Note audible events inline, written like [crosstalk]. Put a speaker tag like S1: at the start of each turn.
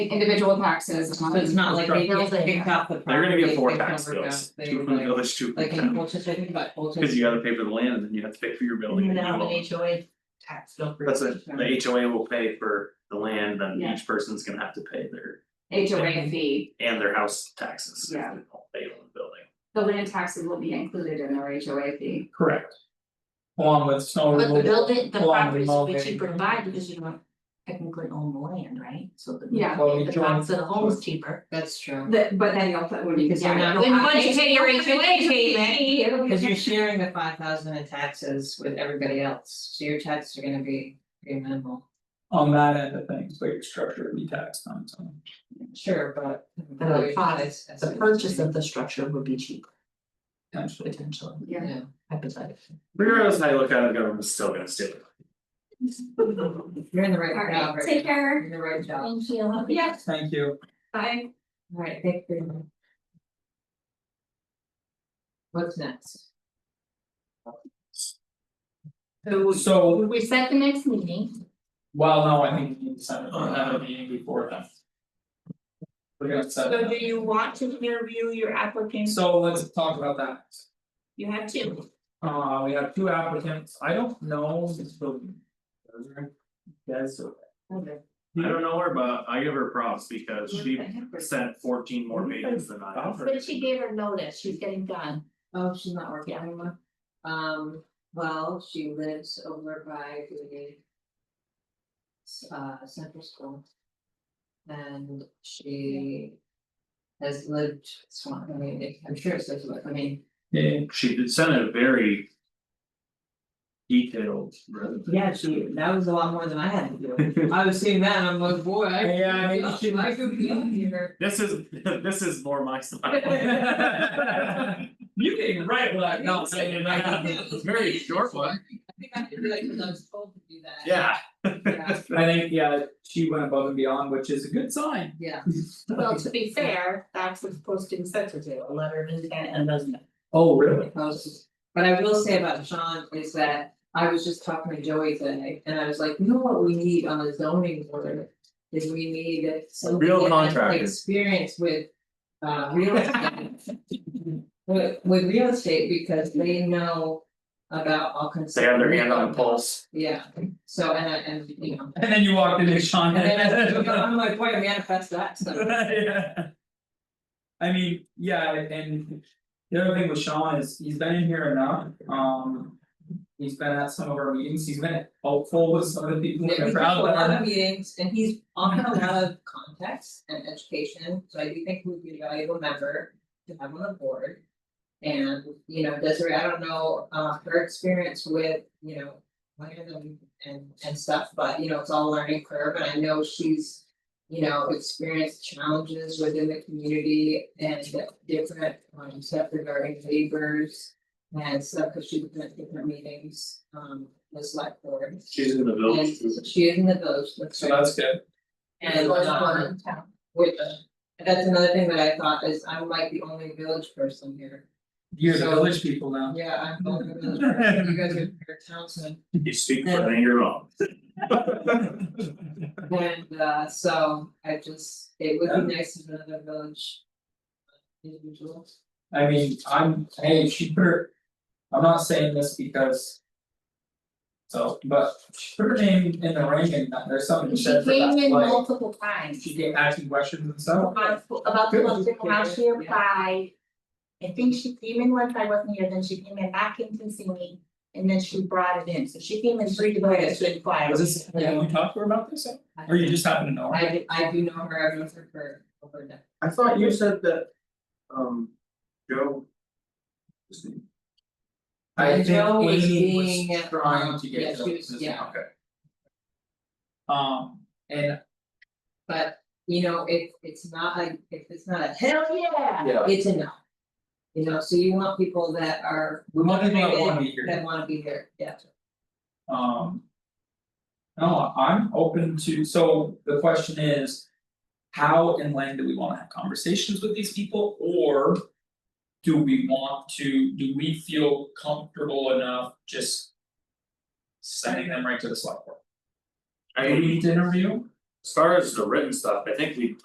S1: individual taxes.
S2: So it's not like they just picked up the
S3: They're gonna
S2: property,
S3: get four
S2: they
S3: tax
S2: covered
S3: bills,
S2: up, they
S3: two from the
S2: like-
S3: village, two from
S2: Like in
S3: town,
S2: Colchester, I think about Colchester.
S3: cause you gotta pay for the land and then you have to pay for your building.
S2: You
S3: and your
S2: know,
S3: loan.
S2: an HOA tax bill for.
S3: That's it,
S2: each member.
S3: the HOA will pay for the land, then
S1: Yeah.
S3: each person's gonna have to pay their,
S1: HOA fee,
S3: and their house taxes. if
S1: Yeah.
S3: they don't Pay on the building.
S1: the land taxes will be included in their HOA fee.
S4: Correct. Along with snow
S5: But the
S4: removal,
S5: building, the
S4: along with
S5: properties which
S4: mulberry.
S5: you provide, because you don't technically own the land, right? So the.
S1: Yeah.
S4: Well, we
S5: The
S4: joined-
S5: cost of the home is cheaper.
S2: That's true.
S1: That, but then you'll put, when you,
S2: Because you're
S1: yeah,
S2: not-
S1: you'll-
S5: Then once you pay your HOA fee,
S1: It'll be-
S2: Cause you're sharing the five thousand in taxes with everybody else, so your taxes are gonna be pretty minimal.
S4: on that end of things, but your structure would be taxed on its own.
S2: Sure, but.
S5: But the cost, the purchase of the structure would be cheaper
S4: potentially.
S5: potentially,
S1: Yeah.
S2: Yeah.
S5: hypothetically.
S3: Regardless of how you look at it, the government's still gonna steal it.
S2: You're in the right
S1: All right,
S2: job right
S1: take
S2: now.
S1: care.
S2: You're in the right job.
S5: Thank you.
S1: Yeah.
S4: Thank you.
S1: Bye.
S2: Alright, thank you. What's next?
S1: So
S4: So,
S1: we set the next meeting,
S4: well, no, I think we need to set it, or have a meeting before then. We're gonna set.
S6: So
S4: it.
S6: do you want to interview your applicants?
S4: So let's talk about that.
S6: You have two.
S4: Uh, we have two applicants, I don't know if the- Yes, so-
S3: I don't know her, but I give her props because she sent fourteen more pages than I have.
S5: But she gave her notice, she's getting done.
S2: Oh, she's not working anymore. Um, well, she lives over by the. s- Uh, central school. And she. Has lived, Swan, I mean, I'm sure it's, I mean.
S4: yeah,
S3: She did send a very. Detailed. resume.
S2: Yeah, she, that was a lot more than I had to do. I was seeing that and I'm like, boy, I.
S4: Yeah, I mean, she-
S2: I could be on here.
S3: This is, [laughs] this is more my style.
S4: [laughs]
S3: [laughs]
S4: You can write what I don't say, and I-
S3: It's a very short one.
S2: I think I did like, cause I was told to do that.
S3: Yeah.
S2: Yeah,
S4: I think, yeah, she went above and beyond, which is a good sign.
S2: yeah.
S6: Well, to be fair, that's what's posting sensitive, a letter of intent and resume.
S4: Oh, really?
S2: posts. But I will say about Sean is that I was just talking to Joey today and I was like, you know what we need on the zoning board? Is we need somebody
S3: Real
S2: that has like,
S3: contractors.
S2: experience with uh real estate. With with real estate because they know about all kinds of.
S3: They have their hand on the pulse.
S2: Yeah, so and I and you know.
S4: And then you walked into Sean.
S2: And then I- I'm like, boy, manifest that, so.
S4: Yeah. [laughs] I mean, yeah, and the other thing with Sean is he's been in here enough, um. He's been at some of our meetings, he's been helpful with some of the people in
S2: Yeah,
S4: the
S2: he's
S4: crowd,
S2: a
S4: but
S2: lot
S4: I-
S2: of meetings and he's on a lot of contacts and education, so I do think would be a valuable member to have on the board. And, you know, Desiree, I don't know, uh, her experience with, you know, land and and and stuff, but you know, it's all a learning curve, and I know she's. You know, experienced challenges within the community and different um stuff regarding neighbors. And stuff, cause she's been at different meetings, um, this select board.
S3: She's in the village.
S2: And she is in the village, that's
S4: so
S2: right,
S4: that's good.
S2: and um, with, and that's another thing that I thought is I'm like the only village person here.
S4: You're the
S2: So-
S4: village people now. [laughs]
S2: Yeah, I'm the only village person, you guys are your townsmen,
S3: You speak for an angry mom.
S2: and uh, so I just, it would be nice if another village. Individual,
S4: I mean, I'm, hey, she put her, I'm not saying this because. So, but she put her name in the ring and there's something
S5: She
S4: said for that,
S5: came in
S4: like,
S5: multiple times.
S4: she gave asking questions and stuff.
S6: About
S5: About
S4: Good.
S5: the
S6: the how she applied. I think she came in once I wasn't here, then she came in back in to see me, and then she brought it in, so she came in three times to inquire.
S4: Was this, have you talked to her about this, or you just happen to know her?
S2: I do, I do know her, I've known her for over a decade.
S3: I thought you said that, um, Joe. his name?
S4: I
S2: And
S4: think
S2: Joe was
S4: Amy
S2: being,
S4: was trying to
S2: um, yeah,
S4: get
S2: she was-
S4: Joe's,
S2: yeah.
S3: Okay.
S4: um, and
S2: But, you know, if it's not like, if it's not a hell yeah,
S3: Yeah.
S2: it's a no. You know, so you want people that are.
S4: we wanted to wanna be here.
S2: That wanna be here, yeah.
S4: Um. No, I'm open to, so the question is. How and when do we wanna have conversations with these people or? Do we want to, do we feel comfortable enough just? Sending them right to the select board?
S3: I
S4: Do we
S3: mean,
S4: need to interview?
S3: As far as the written stuff, I think we